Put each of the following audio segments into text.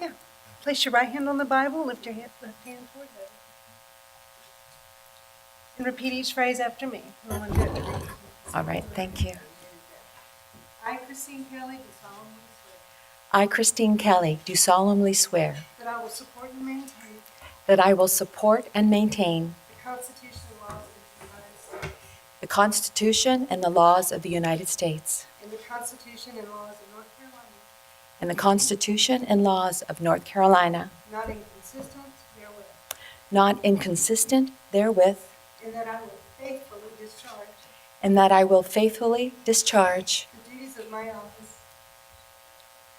Yeah. Place your right hand on the Bible, lift your hand, left hand toward heaven. And repeat each phrase after me. Everyone do it. All right, thank you. I, Christine Kelly, do solemnly swear I, Christine Kelly, do solemnly swear that I will support and maintain that I will support and maintain the Constitution and laws of the United States the Constitution and the laws of the United States and the Constitution and laws of North Carolina, and the Constitution and laws of North not Carolina, inconsistent therewith, not inconsistent therewith, and that I will faithfully discharge and that I will faithfully discharge the duties of my office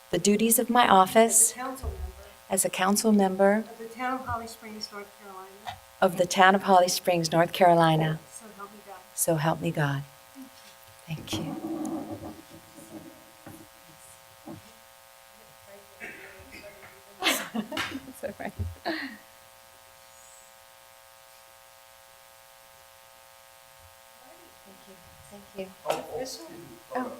the duties of my as a office council member as a council member of the town of Holly Springs, North Carolina, of the town of Holly Springs, North Carolina. so help me God. So help me God. Thank you. It's all right. Thank you. Thank you. This one? Oh.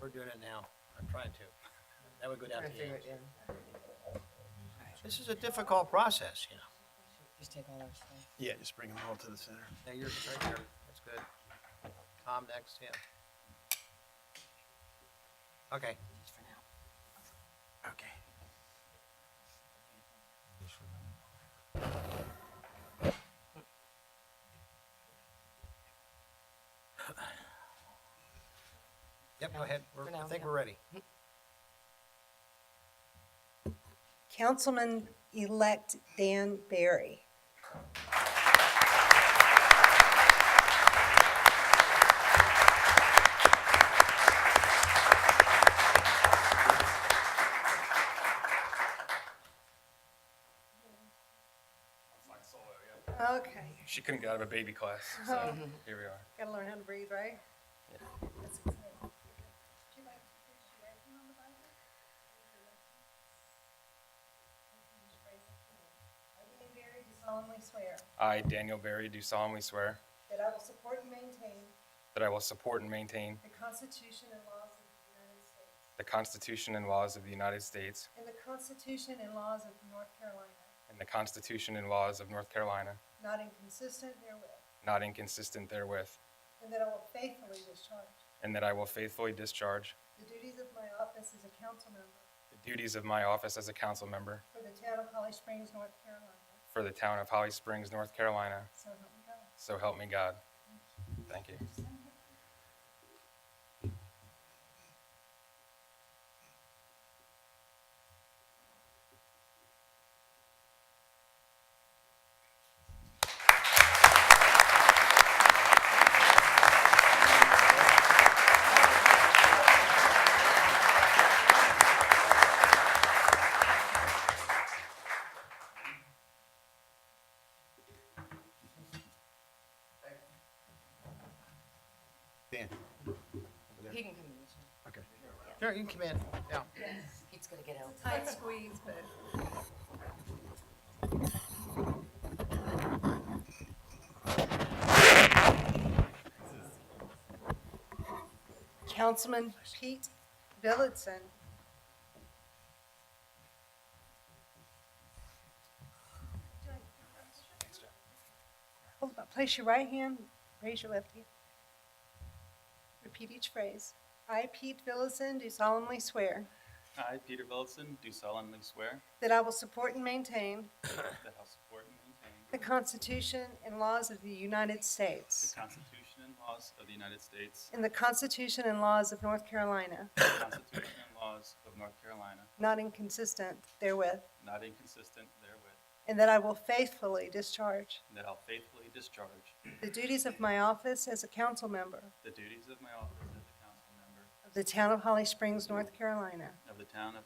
We're doing it now. I'm trying to. That would go down to the end. This is a difficult process, you know. Just take all our stuff. Yeah, just bring them all to the center. Now, yours is right there. That's good. Tom next, yeah. Okay. Okay. Yep, go ahead. We're, For I now, think yeah. we're ready. Councilman-elect Dan Barry. Okay, She couldn't get out of a baby class, so here we are. gotta learn how to breathe, right? That's it. Would you like to place your right hand on the Bible? I, Dan Barry, do solemnly swear I, Daniel Berry, do solemnly swear that I will support and maintain that I will support and maintain the Constitution and laws of the United States the Constitution and laws of the United States and the Constitution and laws of North Carolina, and the Constitution and laws of North Carolina, not inconsistent therewith, not inconsistent therewith, and that I will faithfully discharge and that I will faithfully discharge the duties of my office as a council member the duties of my office as a council member for the town of Holly Springs, North Carolina. for the town of Holly Springs, North Carolina. So help me God. So help me God. Thank you. Dan. He can come in this one. Okay. Sure, you can come in. Yeah. Pete's gonna get out. Tight squeeze, but. Councilman Pete Billitson. Hold on, Place your right hand, raise your left hand. Repeat each phrase. I, Pete Billitson, do solemnly swear. I, Peter Billson, do solemnly swear That I will support and maintain that I'll support and maintain the Constitution and laws of the United the States Constitution and laws of the United States, and the Constitution and laws of North Carolina, the Constitution and laws of North Carolina, not inconsistent therewith, not inconsistent therewith, and that I will faithfully discharge and that I'll faithfully discharge the duties of my office as a council member the duties of my office as a council member of the town of Holly Springs, North Carolina, of the town of